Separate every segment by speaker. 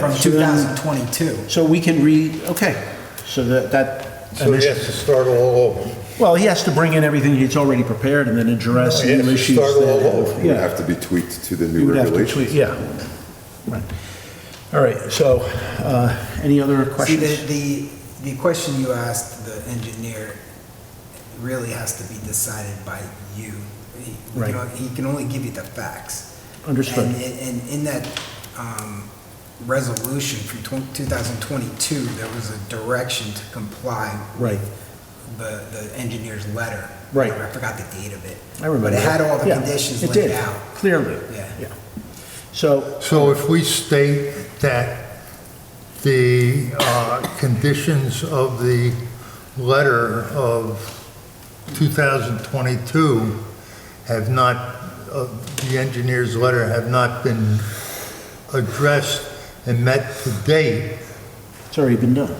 Speaker 1: from
Speaker 2: So then-
Speaker 1: 2022.
Speaker 2: So we can re, okay, so that, that.
Speaker 3: So he has to start all over.
Speaker 2: Well, he has to bring in everything he's already prepared and then address
Speaker 3: No, he has
Speaker 2: new
Speaker 3: to
Speaker 2: issues.
Speaker 3: start all
Speaker 2: that-
Speaker 3: over.
Speaker 4: It would
Speaker 2: Yeah.
Speaker 4: have to be tweaked to the
Speaker 2: You
Speaker 4: new
Speaker 2: would have to
Speaker 4: regulations.
Speaker 2: tweet, Yeah. Right. All right, so, uh, any other
Speaker 1: See, the,
Speaker 2: questions?
Speaker 1: the, the question you asked the engineer really has to be decided by you. He- you
Speaker 2: Right.
Speaker 1: know, He can only give you the facts. And,
Speaker 2: Understood.
Speaker 1: and and in that, um, resolution from twen- 2022, there was a direction to comply
Speaker 2: Right,
Speaker 1: the, the engineer's letter.
Speaker 2: Right.
Speaker 1: I forgot the date of it.
Speaker 2: I remember.
Speaker 1: But it had
Speaker 2: that.
Speaker 1: all the
Speaker 2: Yeah,
Speaker 1: conditions
Speaker 2: it
Speaker 1: laid
Speaker 2: did,
Speaker 1: out.
Speaker 2: Clearly.
Speaker 1: Yeah.
Speaker 2: So,
Speaker 3: So if we state that the uh, conditions of the letter of 2022 have not, uh, the engineer's letter have not been addressed and met to date,
Speaker 2: it's already been done.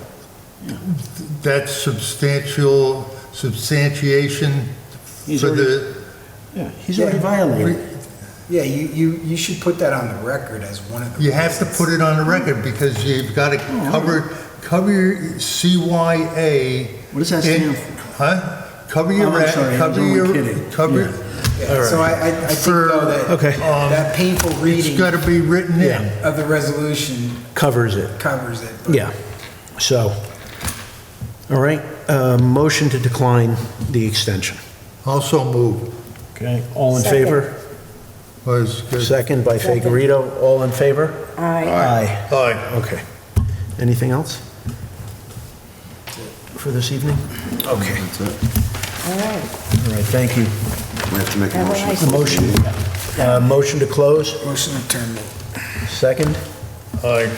Speaker 3: that's substantial, substantiation
Speaker 2: He's
Speaker 3: for
Speaker 2: already,
Speaker 3: the
Speaker 2: yeah, he's already violated.
Speaker 1: Yeah, you, you, you should put that on the record as one of the.
Speaker 3: You have to
Speaker 1: reasons.
Speaker 3: put it on the record because you've got to
Speaker 2: Oh,
Speaker 3: cover, cover your CYA.
Speaker 2: What does that
Speaker 3: in-
Speaker 2: stand for?
Speaker 3: Huh? Cover your,
Speaker 2: Oh, I'm
Speaker 3: ra-
Speaker 2: sorry, I was
Speaker 3: cover
Speaker 2: only
Speaker 3: your,
Speaker 2: kidding.
Speaker 3: cover,
Speaker 1: Yeah, So I, I, I think
Speaker 3: For-
Speaker 1: though that.
Speaker 2: Okay.
Speaker 3: um,
Speaker 1: That painful
Speaker 3: it's
Speaker 1: reading
Speaker 3: got to be written in.
Speaker 1: of the resolution
Speaker 2: Covers it.
Speaker 1: covers it. but-
Speaker 2: Yeah, so, all right, uh, motion to decline the extension.
Speaker 3: Also move,
Speaker 2: Okay, all in favor?
Speaker 3: was good.
Speaker 2: Second by Figurito, all in favor?
Speaker 5: Aye.
Speaker 2: Aye.
Speaker 3: Aye.
Speaker 2: Okay. Anything else for this evening? Okay,
Speaker 4: That's it.
Speaker 5: All right.
Speaker 2: all right, thank you.
Speaker 4: We have to make a
Speaker 5: Have a
Speaker 4: motion.
Speaker 5: nice
Speaker 4: to close the
Speaker 2: Motion,
Speaker 4: meeting.
Speaker 2: uh, motion to close,
Speaker 1: Motion to terminate.
Speaker 2: second,
Speaker 3: Aye.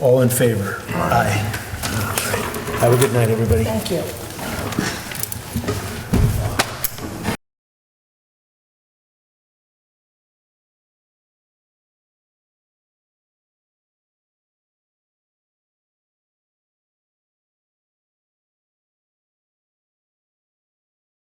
Speaker 2: all in favor? Aye. All right. Have a good night, everybody.
Speaker 5: Thank you.